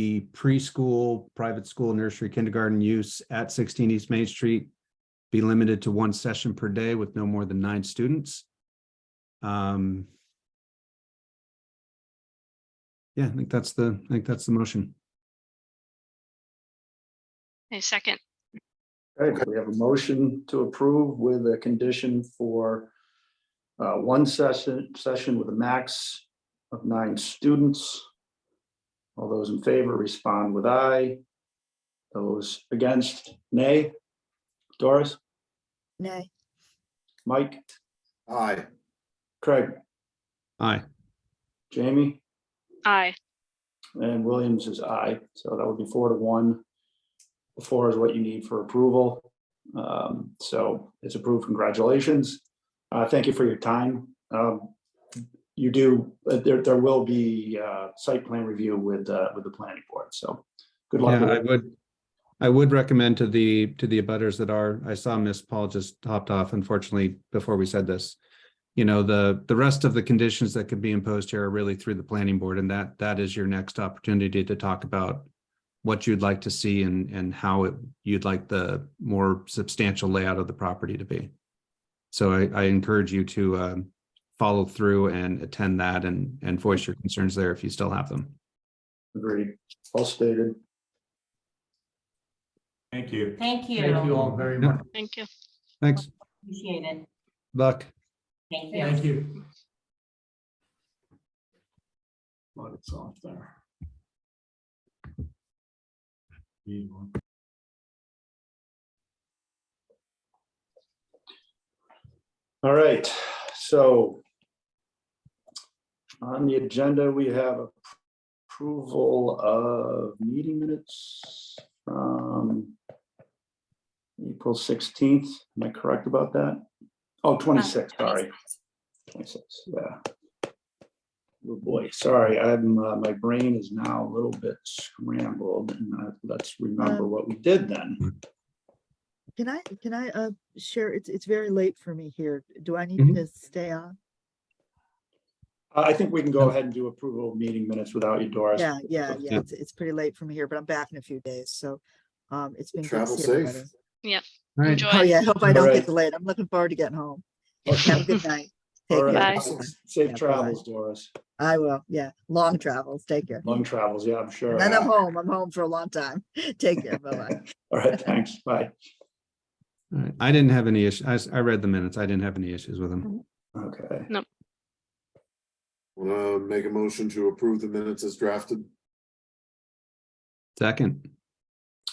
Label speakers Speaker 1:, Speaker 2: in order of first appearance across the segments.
Speaker 1: the preschool, private school, nursery, kindergarten use at sixteen East Main Street be limited to one session per day with no more than nine students. Um. Yeah, I think that's the, I think that's the motion.
Speaker 2: A second,
Speaker 3: Okay, we have a motion to approve with a condition for uh, one session, session with a max of nine students. All those in favor respond with aye. Those against, nay. Doris,
Speaker 4: Nay.
Speaker 3: Mike,
Speaker 5: Aye.
Speaker 3: Craig,
Speaker 1: Aye,
Speaker 3: Jamie,
Speaker 2: aye,
Speaker 3: and Williams is aye. So that would be four to one. Four is what you need for approval. Um, So it's approved. Congratulations. Uh, Thank you for your time. Um, You do, uh, there, there will be uh, site plan review with, uh, with the planning board. So good luck.
Speaker 1: yeah,
Speaker 3: with
Speaker 1: I
Speaker 3: it.
Speaker 1: would, I would recommend to the, to the abutters that are, I saw Miss Paul just hopped off unfortunately before we said this. You know, the, the rest of the conditions that could be imposed here are really through the planning board and that, that is your next opportunity to talk about what you'd like to see and, and how it, you'd like the more substantial layout of the property to be. So I, I encourage you to, um, follow through and attend that and, and voice your concerns there if you still have them.
Speaker 3: Agreed. All stated.
Speaker 6: Thank you.
Speaker 7: Thank you.
Speaker 6: Thank you all very much.
Speaker 2: thank you.
Speaker 1: Thanks,
Speaker 7: Appreciate it.
Speaker 1: Buck.
Speaker 7: Thank you.
Speaker 6: Thank you. Let it's off there.
Speaker 3: All right, so on the agenda, we have approval of meeting minutes from April sixteenth. Am I correct about that? Oh, 26. sorry. Twenty-six, yeah. Oh, boy, sorry, I'm, uh, my brain is now a little bit scrambled and uh, let's remember
Speaker 4: Um,
Speaker 3: what we did then.
Speaker 4: Can I, can I, uh, share, it's, it's very late for me here. Do I need
Speaker 6: Mm-hmm.
Speaker 1: Mhm.
Speaker 4: to stay on?
Speaker 3: I I think we can go ahead and do approval of meeting minutes without you, Doris.
Speaker 4: Yeah, yeah,
Speaker 1: Yeah.
Speaker 4: yeah. It's, it's pretty late for me here, but I'm back in a few days, so, um, it's been. good to
Speaker 5: Travel
Speaker 4: see
Speaker 5: safe.
Speaker 4: everybody.
Speaker 2: Enjoy.
Speaker 4: Oh, yeah, I hope I don't
Speaker 3: Alright.
Speaker 4: get delayed. I'm looking forward to getting home. Have a good night. Take
Speaker 3: All
Speaker 4: care.
Speaker 3: right.
Speaker 2: Bye.
Speaker 3: Safe
Speaker 4: Yeah,
Speaker 3: travels, Doris.
Speaker 4: I will, yeah. Long travels. Take care.
Speaker 3: Long travels, yeah, I'm sure.
Speaker 4: And then I'm home. I'm home for a long time. Take care. Bye-bye.
Speaker 3: All right, thanks, bye.
Speaker 1: All right. I didn't have any issue. I, s- I read the minutes. I didn't have any issues with them.
Speaker 3: Okay,
Speaker 5: Want to make a motion to approve the minutes as drafted?
Speaker 1: Second,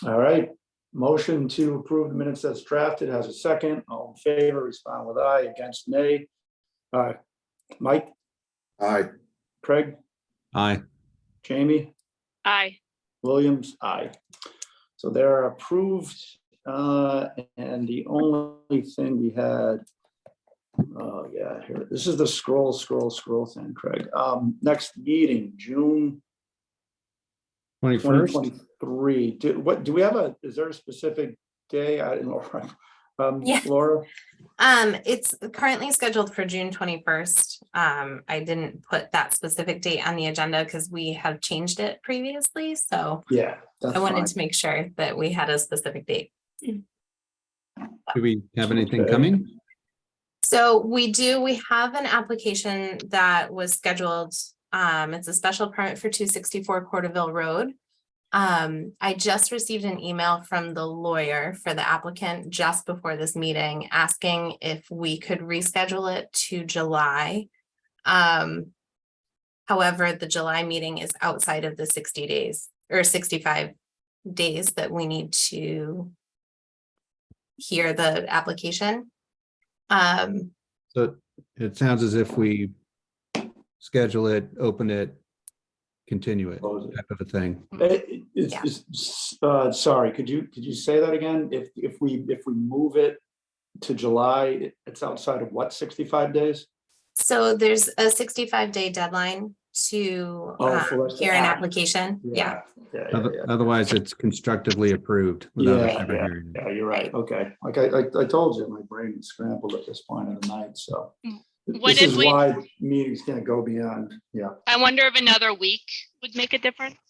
Speaker 3: all right. Motion to approve the minutes as drafted has a second. All in favor, respond with aye, against nay. Uh, Mike,
Speaker 5: Aye.
Speaker 3: Craig,
Speaker 1: aye.
Speaker 3: Jamie,
Speaker 2: Aye,
Speaker 3: Williams, aye. So they're approved. uh, And the only thing we had, oh, yeah, here, this is the scroll, scroll, scroll thing, Craig. Um, Next meeting, June
Speaker 1: Twenty-first,
Speaker 3: 2023, do, what, do we have a, is there a specific day, I, Laura? Um,
Speaker 8: Yeah.
Speaker 3: Laura,
Speaker 8: Um, it's currently scheduled for June twenty-first. Um, I didn't put that specific date on the agenda because we have changed it previously, so
Speaker 3: yeah, that's
Speaker 8: I
Speaker 3: fine.
Speaker 8: wanted to make sure that we had a specific date.
Speaker 1: do we have anything
Speaker 3: Okay.
Speaker 1: coming?
Speaker 8: So we do, we have an application that was scheduled. Um, it's a special permit for two sixty-four Porterville Road. Um, I just received an email from the lawyer for the applicant just before this meeting, asking if we could reschedule it to July. Um, however, the July meeting is outside of the sixty days or sixty-five days that we need to hear the application. Um,
Speaker 1: So it sounds as if we schedule it, open it, continue it,
Speaker 3: Close it.
Speaker 1: type of a thing.
Speaker 3: Eh, eh, It's, it's, uh, sorry, could you, could you say that again? If, if we, if we move it to July, it- it's outside of what, 65 days?
Speaker 8: so there's a sixty-five day deadline to
Speaker 3: Oh,
Speaker 8: um,
Speaker 3: for us to
Speaker 8: hear an
Speaker 3: act.
Speaker 8: application, yeah.
Speaker 3: Yeah, yeah,
Speaker 1: Oth-
Speaker 3: yeah.
Speaker 1: Otherwise, it's constructively approved without us
Speaker 3: Yeah,
Speaker 1: ever hearing. it.
Speaker 3: Yeah, you're right, okay. Like I, I, I told you, my brain is scrambled at this point of the night, so.
Speaker 2: Mm.
Speaker 3: th-
Speaker 2: What
Speaker 3: This
Speaker 2: if
Speaker 3: is
Speaker 2: we-
Speaker 3: why meetings can't go beyond, yeah.
Speaker 2: I wonder if another week would make a difference?